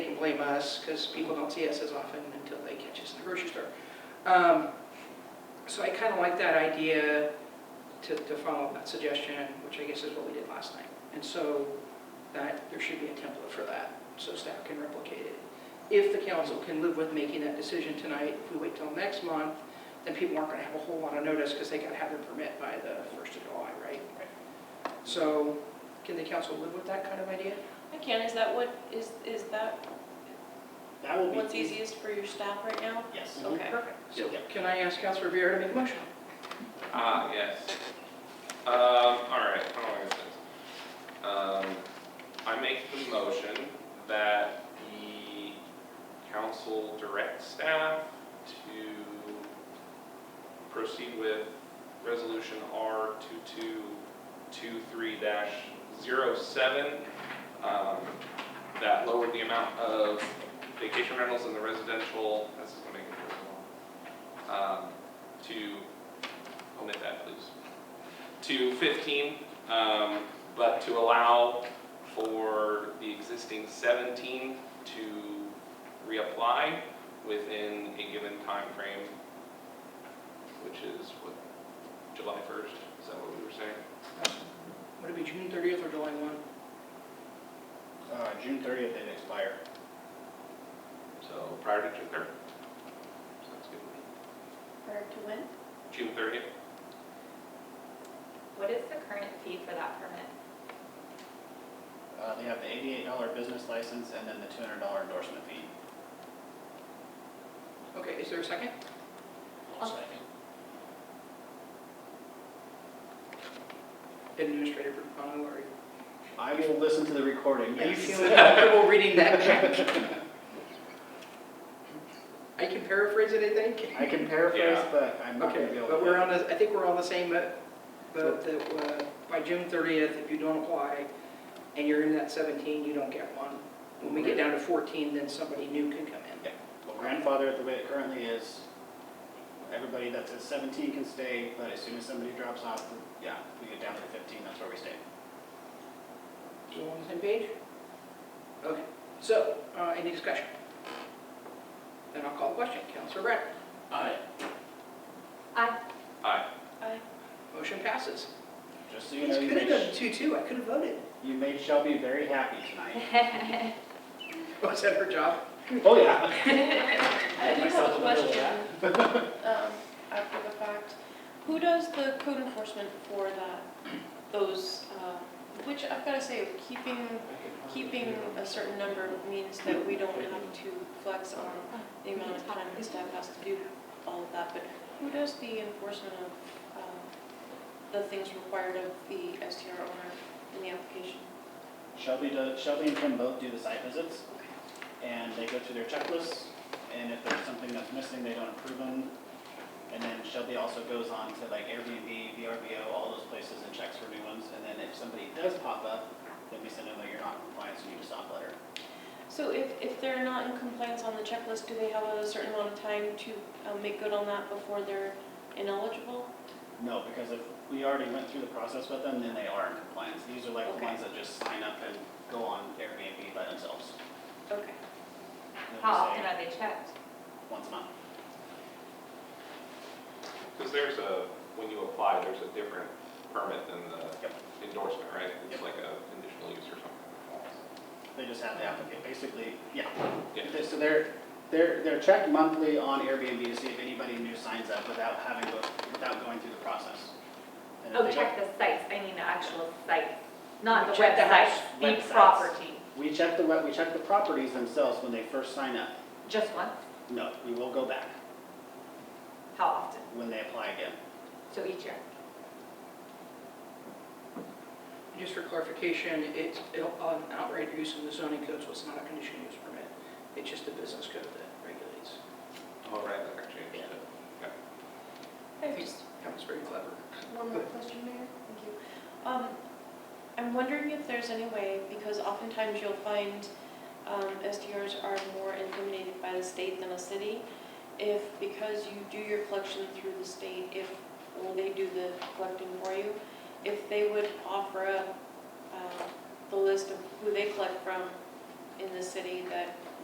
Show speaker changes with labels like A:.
A: blame us, because people don't see us as often until they catch us in the grocery store. Um, So I kind of like that idea to, to follow that suggestion, which I guess is what we did last night. And so that, there should be a template for that, so staff can replicate it. If the council can live with making that decision tonight, if we wait till next month, then people aren't going to have a whole lot of notice because they got to have their permit by the 1st of July, right? So can the council live with that kind of idea?
B: I can, is that what, is, is that
C: That will be.
B: what's easiest for your staff right now?
C: Yes.
B: Okay.
A: Perfect. So
C: Yeah.
A: can I ask Councilor Viera to make a motion?
D: Ah, yes. Um, all right, how long is this? Um, I make the motion that the council direct staff to proceed with resolution R two-two-two-three dash zero-seven. Um, that lowered the amount of vacation rentals in the residential, this is gonna make it really long. Um, to omit that, please. To 15, um, but to allow for the existing 17 to reapply within a given time frame, which is what, July 1st? Is that what we were saying?
A: Would it be June 30th or July 1?
C: Uh, June thirtieth, it expire.
D: So prior to June 3rd? Sounds good. to
B: Prior to when?
D: me. June 30th?
E: What is the current fee for that permit?
C: Uh, they have the eighty-eight dollar business license and then the two hundred dollar endorsement fee.
A: Okay, is there a second? Administrator Brupano, are you-
C: I will listen to the recording.
A: are you
C: yes.
A: feeling comfortable reading that back? I can paraphrase it, I think.
C: I can paraphrase,
D: Yeah.
C: but I'm not gonna be
A: Okay,
C: able to.
A: but we're on, the- I think we're on the same, uh, boat that uh, by June 30th, if you don't apply and you're in that 17, you don't get one. When we get down to 14, then somebody new can come in.
C: Well, grandfather, it the way it currently is, everybody that's at seventeen can stay, but as soon as somebody drops off, yeah, we get down to fifteen, that's where we stay.
A: You on the same page? Okay, so, uh, any discussion? Then I'll call the question. Counselor Brad?
C: Aye.
E: I,
D: Aye.
B: I,
A: Motion passes.
C: Just so you know,
A: This
C: you
A: could have done
C: made,
A: two-two, I could have voted.
C: you made Shelby very happy tonight.
A: Was that her job?
C: Oh, yeah.
B: I do have
C: myself
B: a
C: in the middle of
B: question, um, after the fact. Who does the code enforcement for that, those, uh, which I've gotta say, keeping, keeping a certain number means that we don't have to flex on the amount of time the staff has to do all of that, but who does the enforcement of, um, the things required of the STR owner in the application?
C: Shelby does, Shelby and Tim both do the site visits.
B: Okay.
C: and they go through their checklists, and if there's something that's missing, they don't approve them. And then Shelby also goes on to like Airbnb, VRBO, all those places and checks for new ones, and then if somebody does pop up, then we send them, like, you're not in compliance, you need a stop letter.
B: So if, if they're not in compliance on the checklist, do they have a certain amount of time to um, make good on that before they're ineligible?
C: No, because if we already went through the process with them, then they are in compliance. These are like the
B: Okay.
C: ones that just sign up and go on Airbnb by themselves.
B: Okay.
C: And they'll
E: how
C: just
E: often
C: say
E: are they checked?
C: Once a month.
D: Because there's a, when you apply, there's a different permit than the endorsement, right?
C: Yep.
D: It's like a conditional use or something.
C: They just have the applicant, basically, yeah.
D: Yeah.
C: They- So they're, they're, they're checked monthly on Airbnb to see if anybody new signs up without having, go- without going through the process. And if
E: Oh,
C: they
E: check
C: don't-
E: the sites, I mean the actual sites, not the
C: Check the
E: website,
C: house
E: the
C: websites.
E: property.
C: We check the, we- we check the properties themselves when they first sign up.
E: Just once,
C: No, we will go back
E: how often?
C: when they apply again.
E: So each year?
A: Just for clarification, it's it'll- an outright use in the zoning code, so it's not a conditional use permit. It's just a business code that regulates.
D: All right, that actually.
C: Yeah.
B: I have just
A: That was very clever.
B: one more question, Mayor. Thank you. Um, I'm wondering if there's any way, because oftentimes you'll find um, SDRs are more intimidated by the state than a city. If, because you do your collection through the state, if, or they do the collecting for you, if they would offer up um, the list of who they collect from in the city that